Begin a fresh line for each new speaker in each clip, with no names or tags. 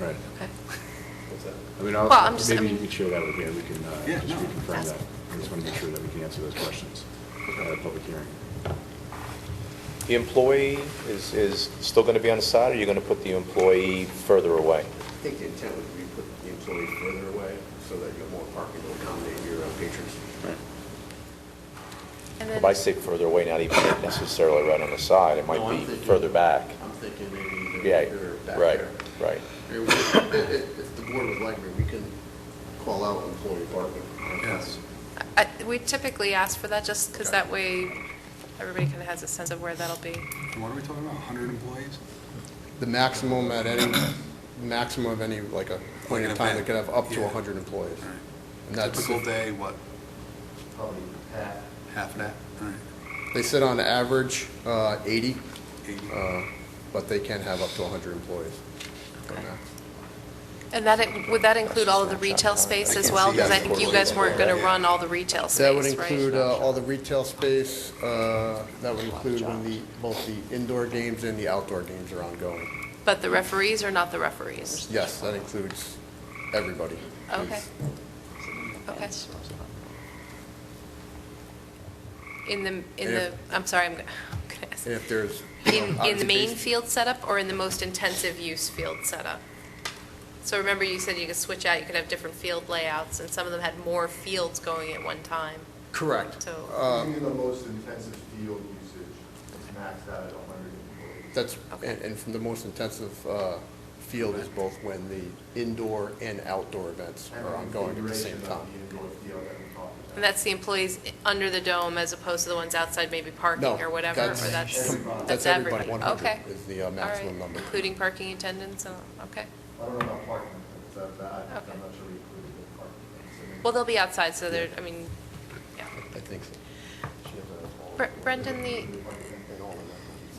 Right.
Okay.
I mean,
Well, I'm
I'll,
just- I
maybe you
mean-
can share that with me, and we can uh,
Yeah,
just
no.
reconfirm
Ask.
that. I just want to make sure that we can answer those questions at a public hearing.
The employee is, is still going to be on the side, or you're going to put the employee further away?
I think the intent would be to put the employee further away so that you have more parking to accommodate your uh, patrons.
And
If I
then,
say further away, not even necessarily right on the side, it
No,
might
I'm
be
thinking-
further back.
I'm thinking maybe
Yeah,
they're back
right,
there.
right.
Maybe we- If if- if the board would like, maybe we can call out employee parking.
Yes.
I- we typically ask for that just because
Okay.
that way everybody kind of has a sense of where that'll be.
What are we talking about, 100 employees?
The maximum at any, maximum of any, like a point in
Like an
time,
event.
that could have up to
Yeah.
100 employees.
All
And
right.
that's,
Typical day, what,
Probably half.
half of that? All right,
they sit on average uh, 80,
80.
uh, but they can have up to 100 employees.
Okay. And that, it- would that include all of the
Snapshot
retail
time. I
space
can
as
see
well? Because I
that.
think you guys weren't going to run all the retail space, right?
That would include uh, all the retail space, uh, that would include when the, both the indoor games and the outdoor games are ongoing.
But the referees or not the referees?
Yes, that includes everybody.
Okay. Okay. In the, in the,
If-
I'm sorry, I'm going to ask.
And if there's.
In, in the main
observation-
field setup or in the most intensive use field setup? So remember you said you could switch out, you could have different field layouts, and some of them had more fields going at one time,
Correct.
so,
Uh,
Even the most intensive field usage is maxed out at 100 employees.
That's,
Okay.
and, and from the most intensive uh, field is both when the indoor and outdoor events
And
are ongoing at the same
configuration
time.
of the indoor field that we talked about.
and that's the employees i- under the dome as opposed to the ones outside maybe
No,
parking or whatever, or that's, that's everybody?
That's everybody, 100
Okay,
is the uh,
all right,
maximum number.
including parking attendants, and, okay.
I don't know about parking, but uh, that, that, I'm
Okay.
not sure we included the parking.
Well, they'll be outside, so they're, I mean, yeah.
I think so.
Bre- Brendan, the,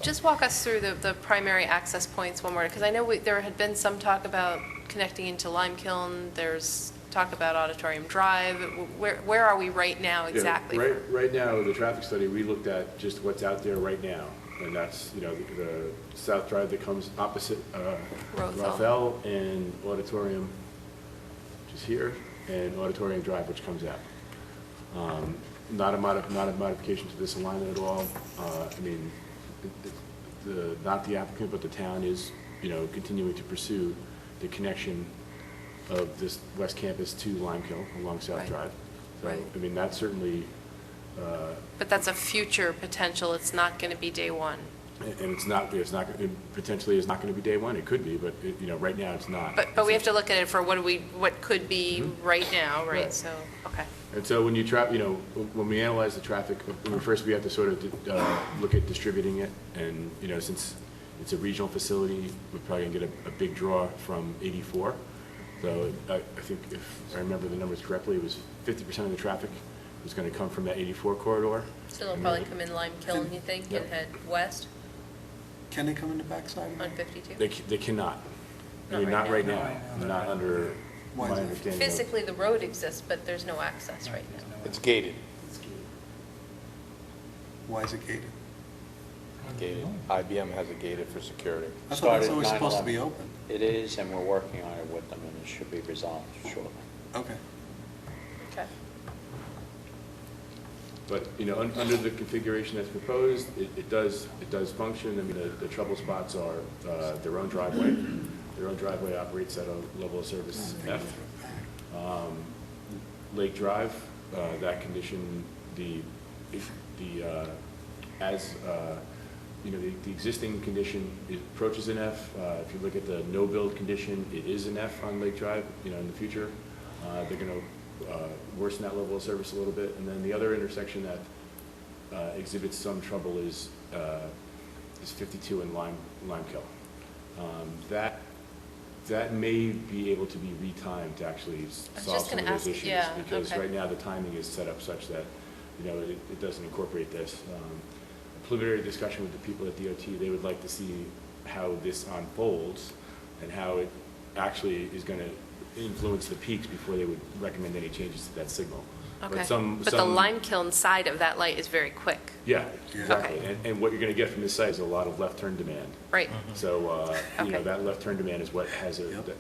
just walk us through the, the primary access points one more, because I know we, there had been some talk about connecting into Lime Kiln, there's talk about Auditorium Drive, Wh- where, where are we right now
Yeah,
exactly?
Right, right now, the traffic study, we looked at just what's out there right now, and that's, you know, the- the south drive that comes opposite uh,
Rothel.
Rothel and Auditorium, which is here, and Auditorium Drive, which comes out. Um, Not a modi, not a modification to this alignment at all. Uh, I mean, it- it- the, not the applicant, but the town is, you know, continuing to pursue the connection of this west campus to Limekiln along South
Right.
Drive. So,
Right.
I mean, that's certainly, uh,
But that's a future potential, it's not going to be day one.
and and it's not, it's not, it potentially is not going to be day one, it could be, but, it- you know, right now, it's not.
But, but we have to look at it for what do we, what could be
Mm-hmm.
right now, right?
Right.
So, okay,
And so when you trap, you know, when we analyze the traffic, uh, first we have to sort of uh, look at distributing it, and, you know, since it's a regional facility, we're probably going to get a, a big draw from 84. So I, I think if I remember the numbers correctly, it was 50% of the traffic was going to come from that 84 corridor.
so they'll probably come in Lime Kiln, you think, and
Yep.
head west
Can they come in the backside? of
on
that?
52?
They, ca- they cannot. I
Not
mean,
right
not right
now.
now, not under my
Why is it?
understanding. of-
Physically, the road exists, but there's no access right now.
It's gated.
Why is it gated?
Gated. IBM has it gated for security.
I thought
Started
it's
at
always supposed to be
9/11.
open.
It is, and we're working on it with them, and it should be resolved shortly.
Okay.
Okay.
But, you know, un- under the configuration that's proposed, it it does, it does function. I mean, the- the trouble spots are uh, their own driveway. Their own driveway operates at a level of service F. Um, Lake Drive, uh, that condition, the, if the, uh, as, uh, you know, the the existing condition it approaches an F. Uh, If you look at the no-build condition, it is an F on Lake Drive, you know, in the future. Uh, They're going to worsen that level of service a little bit. And then the other intersection that uh, exhibits some trouble is, uh, is 52 in Lime, Limekill. Um, That, that may be able to be re-timed to actually s-
I was
solve
just
some of
gonna
those
ask-
issues.
yeah,
Because
okay.
right now, the timing is set up such that, you know, it, it doesn't incorporate this. Um, Preliminary discussion with the people at DOT, they would like to see how this unfolds and how it actually is gonna influence the peaks before they would recommend any changes to that signal. But
Okay,
some-
but the
some-
lime kiln side of that light is very quick,
yeah,
Yeah.
exactly.
Okay.
And, and what you're going to get from this site is a lot of left turn demand.
right?
So, uh, you know,
Okay.
that left turn demand is what has a,
Yep.
that